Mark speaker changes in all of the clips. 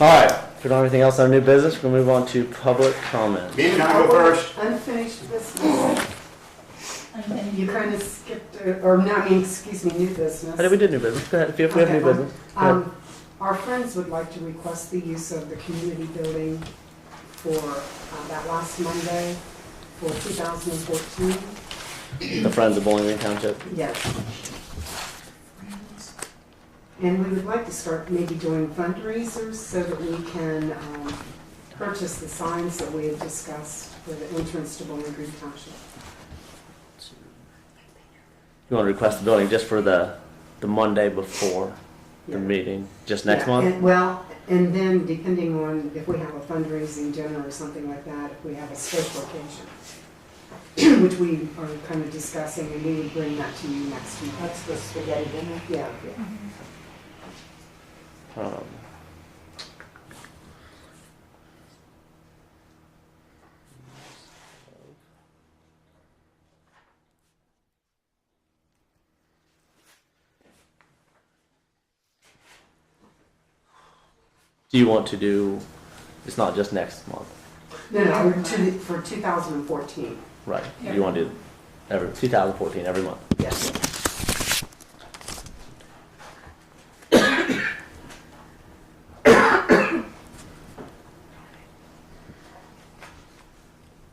Speaker 1: All right, if we don't have anything else on new business, we'll move on to public comment.
Speaker 2: Me and I go first.
Speaker 3: Unfinished business. You kind of skipped, uh, or no, I mean, excuse me, new business.
Speaker 1: How did we do new business? Go ahead, if you if we have new business. go ahead.
Speaker 3: Um, Our friends would like to request the use of the community building for uh, that last Monday for 2014.
Speaker 1: The Friends of Bowling Green Township.
Speaker 3: Yes. And we would like to start maybe doing fundraisers so that we can um, purchase the signs that we had discussed for the entrance to Bowling Green Township.
Speaker 1: You want to request the building just for the, the Monday before
Speaker 3: Yeah.
Speaker 1: the meeting, just next
Speaker 3: Yeah,
Speaker 1: month?
Speaker 3: and- Well, and then depending on if we have a fundraising dinner or something like that, if we have a special occasion, which we are kind of discussing, and we would bring that to you next month.
Speaker 4: That's the spaghetti dinner.
Speaker 3: Yeah, yeah.
Speaker 1: Um, Do you want to do, it's not just next month,
Speaker 3: No, no, for two- for 2014,
Speaker 1: right? You want to do every, 2014, every month?
Speaker 3: yes.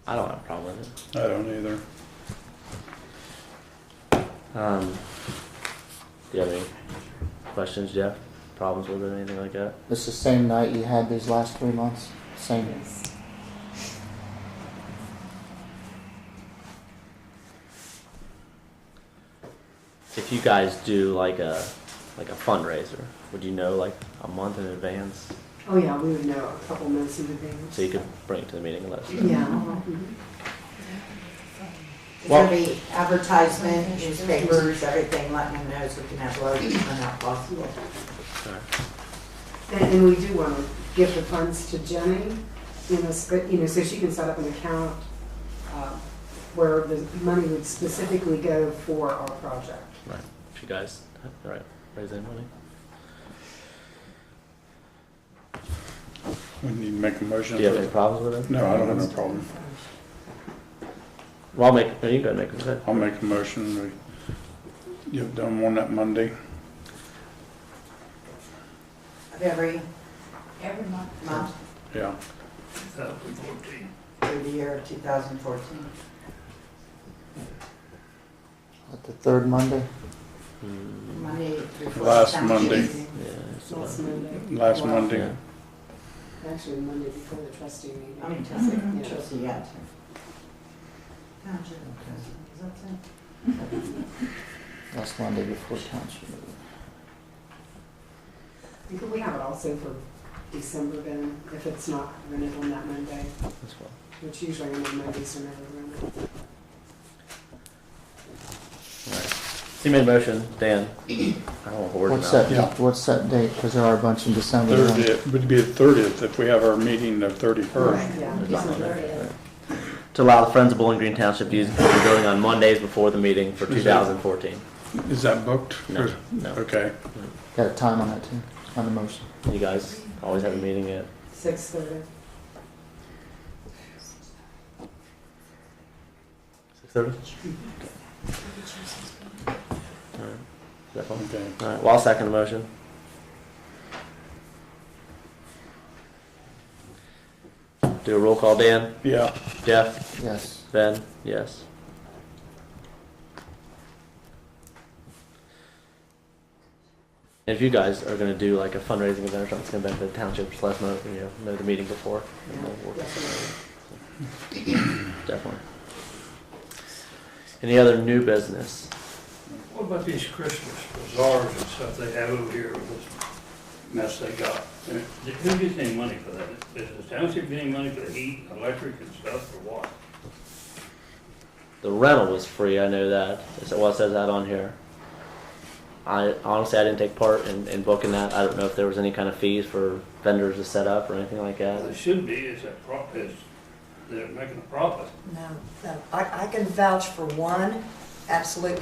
Speaker 1: I don't have a problem with it.
Speaker 2: I don't either.
Speaker 1: Um, do you have any questions, Jeff? Problems with it, anything like that?
Speaker 5: It's the same night you had these last three months. Same.
Speaker 3: Yes.
Speaker 1: If you guys do like a like a fundraiser, would you know like a month in advance
Speaker 3: Oh, yeah, we would know a couple months in advance.
Speaker 1: so you could bring it to the meeting and let us know?
Speaker 3: Yeah. mhm.
Speaker 4: It's gonna be advertisement, newspapers, everything, letting them know so we can have loads of them out possible.
Speaker 3: And, and we do want to give the funds to Jenny, you know, sp- you know, so she can set up an account uh, where the money would specifically go for our project.
Speaker 1: Right. If you guys, all right, raise any money.
Speaker 2: We need to make a motion.
Speaker 1: Do you have any problems with it?
Speaker 2: No, I don't have no problem.
Speaker 1: Well, I'll make. no, You can go ahead and make it. Go ahead.
Speaker 2: I'll make a motion. We You've done one that Monday.
Speaker 4: Every
Speaker 6: Every month.
Speaker 4: month
Speaker 2: Yeah.
Speaker 4: through the year of 2014.
Speaker 5: At the third Monday.
Speaker 1: Mm,
Speaker 4: Monday through.
Speaker 2: Last
Speaker 4: Friday.
Speaker 2: Monday.
Speaker 1: yeah. it's
Speaker 3: Last
Speaker 1: fine.
Speaker 3: Monday,
Speaker 2: Last
Speaker 4: Wow.
Speaker 2: Monday.
Speaker 1: Yeah.
Speaker 3: actually Monday before the trustee meeting.
Speaker 4: I mean, Tuesday,
Speaker 3: Yeah.
Speaker 4: Tuesday, yeah. Gotcha. Is that it?
Speaker 5: Last Monday before township meeting.
Speaker 3: And Could we have it also for December then, if it's not rented on that Monday,
Speaker 1: That's fine.
Speaker 3: which usually on Mondays are never rented.
Speaker 1: All right. So you made a motion, Dan. I don't want to hoard
Speaker 5: What's
Speaker 1: now.
Speaker 5: that?
Speaker 2: Yeah.
Speaker 5: What's that date? Because there are a bunch in December.
Speaker 2: Third, it would be the thirtieth if we have our meeting the thirty-first.
Speaker 3: Yeah.
Speaker 1: There's nothing on
Speaker 3: December, yeah.
Speaker 1: there. To allow the Friends of Bowling Green Township to use the community building on Mondays before the meeting for 2014.
Speaker 2: Is that booked?
Speaker 1: No, no.
Speaker 2: Okay.
Speaker 5: Got a time on that too. On the motion.
Speaker 1: You guys always have a meeting at,
Speaker 3: Six thirty.
Speaker 1: 6:30? All right. Is that fine?
Speaker 2: Okay.
Speaker 1: All right, well, I'll second the motion. Do a roll call, Dan,
Speaker 2: Yeah.
Speaker 1: Jeff,
Speaker 5: Yes.
Speaker 1: Ben, yes. And If you guys are gonna do like a fundraising event or something, it's gonna benefit the township, just let us know, you know, know the meeting before. and we'll work this out. Definitely. Any other new business?
Speaker 7: What about these Christmas bazaars and stuff they have over here with this mess they got? Who gets any money for that? Is the township getting money for the heat, electric and stuff, or what?
Speaker 1: The rental was free, I know that. That's what it says that on here. I honestly, I didn't take part in, in booking that. I don't know if there was any kind of fees for vendors to set up or anything like
Speaker 7: There
Speaker 1: that.
Speaker 7: should be, it's a prop, it's, they're making a profit.
Speaker 8: No, no, I, I can vouch for one, absolutely